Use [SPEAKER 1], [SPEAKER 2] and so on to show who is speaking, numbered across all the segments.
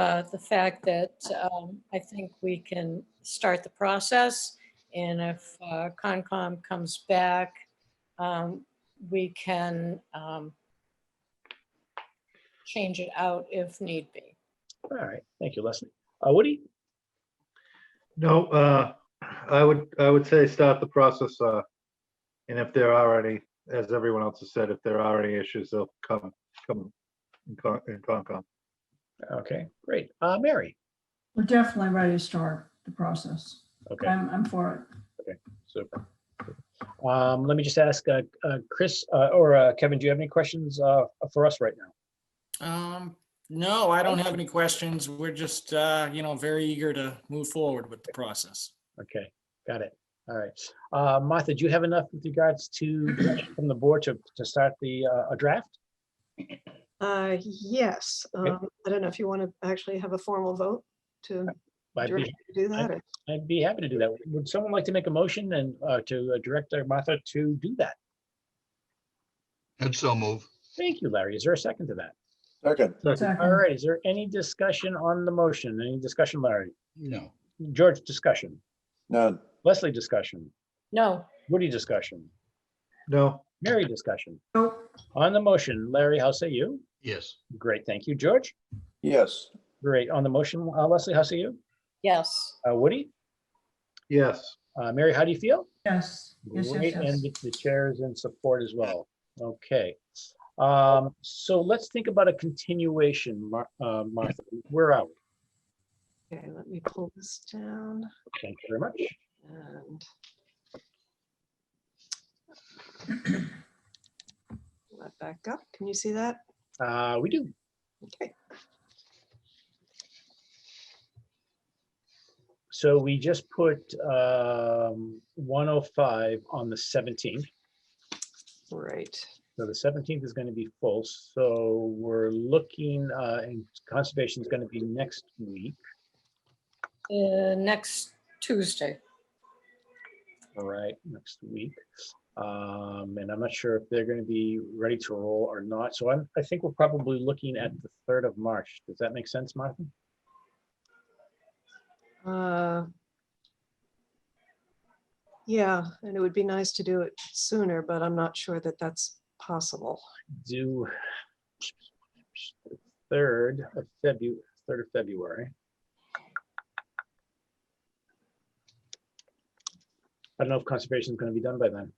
[SPEAKER 1] uh, the fact that um, I think we can start the process. And if uh, Concom comes back, um, we can um, change it out if need be.
[SPEAKER 2] All right, thank you, Leslie. Uh, Woody,
[SPEAKER 3] No, uh, I would, I would say start the process, uh, and if there are any, as everyone else has said, if there are any issues, they'll come, come in Con- in Concom.
[SPEAKER 2] okay, great. Uh, Mary,
[SPEAKER 4] We're definitely ready to start the process.
[SPEAKER 2] okay,
[SPEAKER 4] I'm, I'm for
[SPEAKER 2] super. Um, let me just ask, uh, uh, Chris, uh, or, uh, Kevin, do you have any questions, uh, for us right now?
[SPEAKER 5] Um, no, I don't have any questions. We're just, uh, you know, very eager to move forward with the process.
[SPEAKER 2] Okay, got it. All right. Uh, Martha, do you have enough with regards to, from the board to, to start the, uh, a draft?
[SPEAKER 6] Uh, yes, um, I don't know if you want to actually have a formal vote to
[SPEAKER 2] I'd
[SPEAKER 6] direct
[SPEAKER 2] be,
[SPEAKER 6] you to do that. or-
[SPEAKER 2] I'd be happy to do that. Would someone like to make a motion and, uh, to uh, direct uh, Martha to do that?
[SPEAKER 7] And so move.
[SPEAKER 2] Thank you, Larry. Is there a second to that?
[SPEAKER 8] Second,
[SPEAKER 4] it.
[SPEAKER 2] All
[SPEAKER 4] Second.
[SPEAKER 2] right, is there any discussion on the motion? Any discussion, Larry?
[SPEAKER 7] No.
[SPEAKER 2] George, discussion?
[SPEAKER 8] none,
[SPEAKER 2] Leslie, discussion?
[SPEAKER 1] No,
[SPEAKER 2] Woody, discussion?
[SPEAKER 3] No,
[SPEAKER 2] Mary, discussion?
[SPEAKER 4] Nope.
[SPEAKER 2] On the motion, Larry, how say you?
[SPEAKER 7] Yes.
[SPEAKER 2] Great, thank you. George?
[SPEAKER 8] yes,
[SPEAKER 2] Great. On the motion, uh, Leslie, how say you?
[SPEAKER 1] yes,
[SPEAKER 2] Uh, Woody?
[SPEAKER 3] yes,
[SPEAKER 2] Uh, Mary, how do you feel?
[SPEAKER 4] Yes, yes,
[SPEAKER 2] Great,
[SPEAKER 4] yes,
[SPEAKER 2] and
[SPEAKER 4] yes.
[SPEAKER 2] the- the chair is in support as well. Okay. Um, so let's think about a continuation, Mar- uh, Martha. Where are we?
[SPEAKER 6] Okay, let me pull this down
[SPEAKER 2] Thank you very much.
[SPEAKER 6] and. Pull that Back up. Can you see that?
[SPEAKER 2] Uh, we do.
[SPEAKER 6] Okay.
[SPEAKER 2] So we just put um, 105 on the 17th.
[SPEAKER 6] Right.
[SPEAKER 2] So the 17th is going to be full. So we're looking, uh, and conservation is going to be next week,
[SPEAKER 1] Uh, next Tuesday.
[SPEAKER 2] all right, next week. Um, And I'm not sure if they're going to be ready to roll or not. So I'm, I think we're probably looking at the 3rd of March. Does that make sense, Martha?
[SPEAKER 6] Uh, Yeah, and it would be nice to do it sooner, but I'm not sure that that's possible.
[SPEAKER 2] do third of February, third of February. I don't know if conservation is going to be done by then.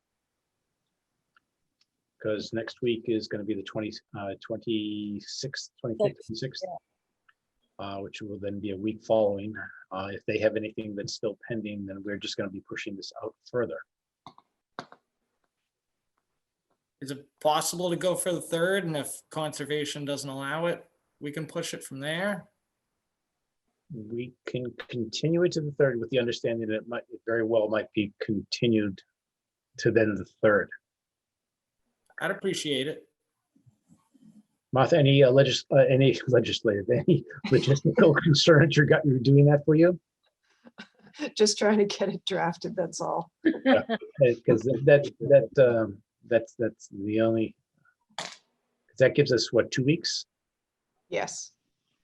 [SPEAKER 2] Because next week is going to be the twenty, uh, twenty-sixth, twenty-fifth, twenty-sixth. Uh, which will then be a week following. Uh, if they have anything that's still pending, then we're just going to be pushing this out further.
[SPEAKER 5] Is it possible to go for the third? And if conservation doesn't allow it, we can push it from there?
[SPEAKER 2] we can continue it to the third with the understanding that it might, it very well might be continued to then the third.
[SPEAKER 5] I'd appreciate it.
[SPEAKER 2] Martha, any uh, legis, uh, any legislative, any logistical concerns you got, you're doing that for you?
[SPEAKER 6] Just trying to get it drafted, that's all.
[SPEAKER 2] Because Uh, that, that, um, that's, that's the only, 'cause that gives us what, two weeks,
[SPEAKER 6] Yes.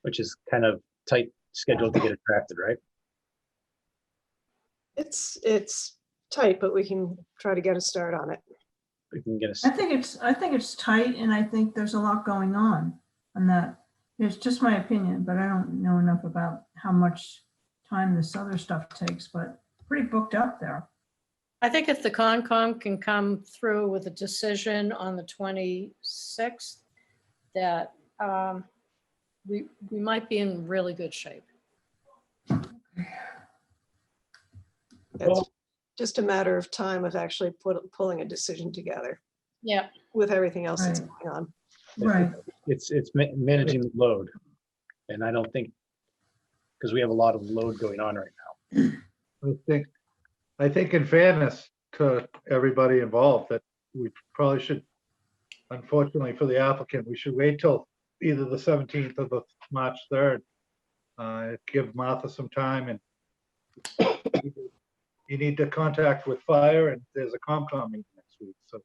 [SPEAKER 2] which is kind of tight schedule to get it drafted, right?
[SPEAKER 6] It's, it's tight, but we can try to get a start on it.
[SPEAKER 2] We can get us,
[SPEAKER 4] I think it's, I think it's tight and I think there's a lot going on on that. It's just my opinion, but I don't know enough about how much time this other stuff takes, but pretty booked up there.
[SPEAKER 1] I think if the Concom can come through with a decision on the 26th, that um, we, we might be in really good shape.
[SPEAKER 6] It's
[SPEAKER 2] Well-
[SPEAKER 6] just a matter of time of actually put- pulling a decision together
[SPEAKER 1] Yeah,
[SPEAKER 6] with everything else that's
[SPEAKER 4] Right.
[SPEAKER 6] going on.
[SPEAKER 4] Right,
[SPEAKER 2] it's, it's ma- managing the load. And I don't think, because we have a lot of load going on right now.
[SPEAKER 3] I think, I think in fairness to everybody involved, that we probably should, unfortunately for the applicant, we should wait till either the 17th or the March 3rd. Uh, Give Martha some time and you need to contact with fire and there's a Comcom meeting next week, so.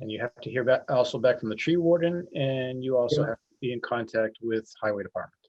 [SPEAKER 2] And you have to hear back, also back from the tree warden, and you also
[SPEAKER 3] Yeah.
[SPEAKER 2] have to be in contact with highway department.